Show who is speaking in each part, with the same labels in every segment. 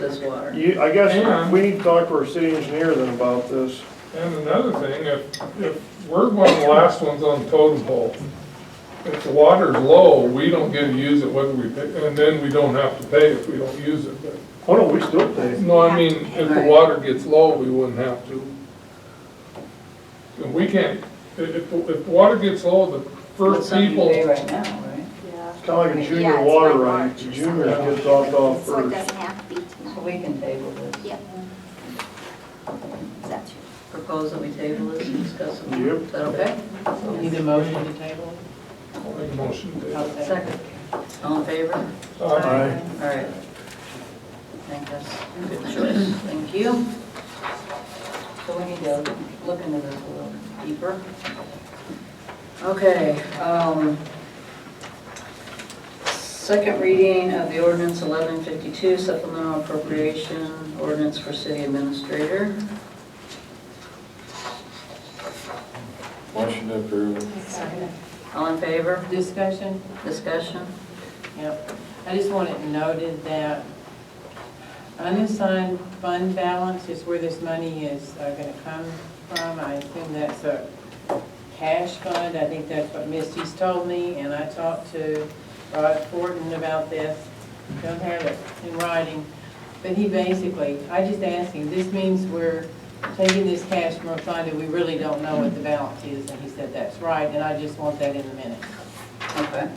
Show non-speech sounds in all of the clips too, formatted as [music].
Speaker 1: this water.
Speaker 2: You, I guess
Speaker 3: Yeah.
Speaker 2: we need to talk to our city engineer then about this.
Speaker 3: And another thing, if, if we're one of the last ones on totem pole, if the water's low, we don't get to use it whether we pay, and then we don't have to pay if we don't use it, but,
Speaker 2: Oh, no, we still pay.
Speaker 3: no, I mean, if the
Speaker 1: Right.
Speaker 3: water gets low, we wouldn't have to. And we can't, if, if, if the water gets low, the
Speaker 1: That's
Speaker 3: first
Speaker 1: something you pay
Speaker 3: people,
Speaker 1: right now, right?
Speaker 4: Yeah.
Speaker 2: It's kinda like a
Speaker 1: Yeah,
Speaker 2: junior
Speaker 4: it's
Speaker 2: water
Speaker 4: like
Speaker 2: right,
Speaker 4: March
Speaker 2: the
Speaker 4: or
Speaker 2: juniors
Speaker 3: something.
Speaker 2: get talked off
Speaker 4: So it
Speaker 2: first.
Speaker 4: doesn't have to be
Speaker 1: So
Speaker 4: tonight.
Speaker 1: we can table this.
Speaker 4: Yep. That's
Speaker 1: Propose that we table this and discuss it.
Speaker 2: Yep.
Speaker 1: Is that okay?
Speaker 5: Need a motion to table?
Speaker 3: I'll make a motion to.
Speaker 5: Okay.
Speaker 1: Second. All in favor? All
Speaker 2: Aye.
Speaker 1: right. I think that's a good choice. Thank you. So we need to look into this a little deeper. Okay, um, second reading of the ordinance 1152 supplemental appropriation ordinance for city administrator.
Speaker 6: Motion to approve.
Speaker 1: All in favor?
Speaker 5: Discussion?
Speaker 1: Discussion?
Speaker 5: Yep. I just want it noted that unassigned fund balance is where this money is uh, gonna come from. I assume that's a cash fund. I think that's what Misty's told me, and I talked to Rod Fortin about this. Don't have it in writing, but he basically, I just asked him, this means we're taking this cash from a fund and we really don't know what the balance is, and he said that's right, and I just want that in the minutes.
Speaker 1: Okay.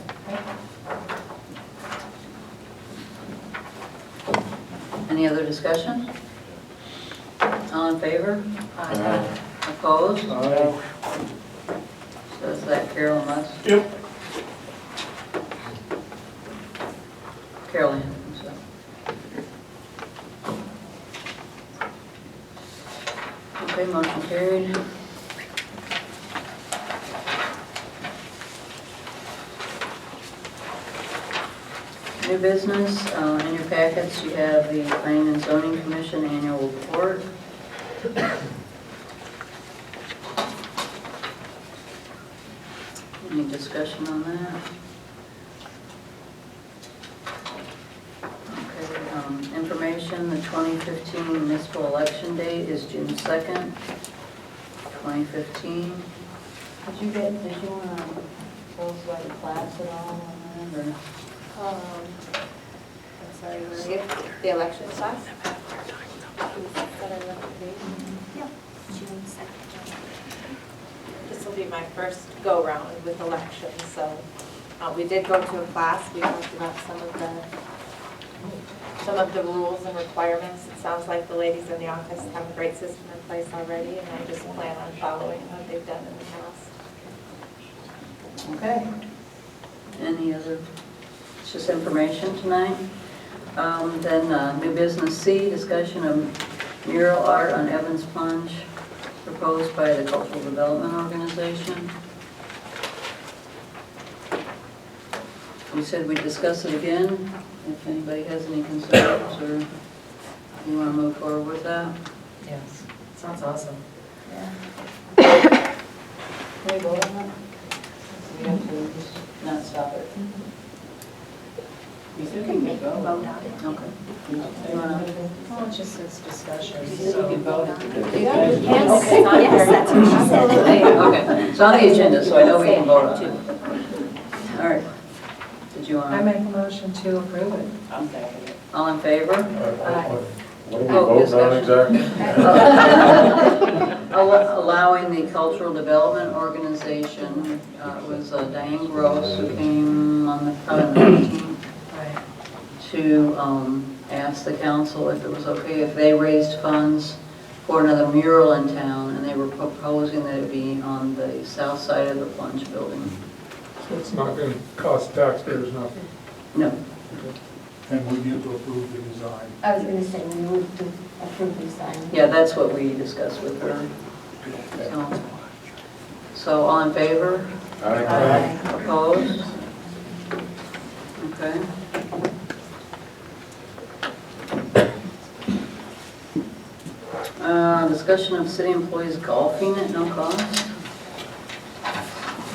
Speaker 1: Any other discussion? All in favor?
Speaker 6: Aye.
Speaker 1: Opposed? So
Speaker 2: Aye.
Speaker 1: is that Carol and us?
Speaker 2: Yep.
Speaker 1: Carol Ann, I'm sorry. Okay, motion carried. New business, uh, in your packets, you have the Planning and Zoning Commission Annual Report. Any discussion on that? Okay, um, information, the 2015 municipal election date is June 2nd, 2015. Did you get, did you want to tell us about the class at all on that, or?
Speaker 4: Um, I'm sorry, Maria. The election class? Yeah. June
Speaker 7: This will be my first go-round with elections, so uh, we did go to a class, we talked about some of the, some of the rules and requirements. It sounds like the ladies in the office have a great system in place already, and I just plan on following what they've done in the
Speaker 1: Okay.
Speaker 7: past.
Speaker 1: Any other, it's just information tonight. Um, Then uh, new business C, discussion of mural art on Evans Plunge proposed by the Cultural Development Organization. We said we'd discuss it again, if anybody has any concerns or you want to move forward with that.
Speaker 5: Yes, sounds awesome.
Speaker 1: Can we vote on that? We have to just not stop it.
Speaker 5: You still can go.
Speaker 4: Vote on it.
Speaker 1: Okay. You wanna-
Speaker 5: Well, it just says discussion,
Speaker 1: so-
Speaker 5: You can vote at the.
Speaker 4: Yes, yes, that's what she said.
Speaker 1: Okay, it's on the agenda, so I know we can vote on it. All right. Did you
Speaker 8: I
Speaker 1: want,
Speaker 8: make a motion to approve it.
Speaker 5: I'm second it.
Speaker 1: all in favor?
Speaker 6: What are we
Speaker 1: Oh,
Speaker 6: voting on
Speaker 1: discussion.
Speaker 6: exactly?
Speaker 1: [laughs] Al- Allowing the Cultural Development Organization, uh, it was uh, Diane Gross who came on the, probably the 19th, to um, ask the council if it was okay if they raised funds for another mural in town, and they were proposing that it be on the south side of the Plunge Building.
Speaker 3: so it's not gonna cost taxpayers nothing.
Speaker 1: No,
Speaker 9: And we need to approve the design.
Speaker 10: I was gonna say, we moved to approve the sign.
Speaker 1: yeah, that's what we discussed with her. So- So all in favor?
Speaker 6: Aye.
Speaker 1: Opposed? Okay. Uh, Discussion of city employees golfing at no cost.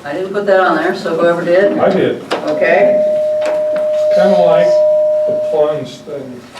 Speaker 1: I didn't put that on there, so whoever did,
Speaker 3: I did.
Speaker 1: okay?
Speaker 3: Kind of like the plunge thing.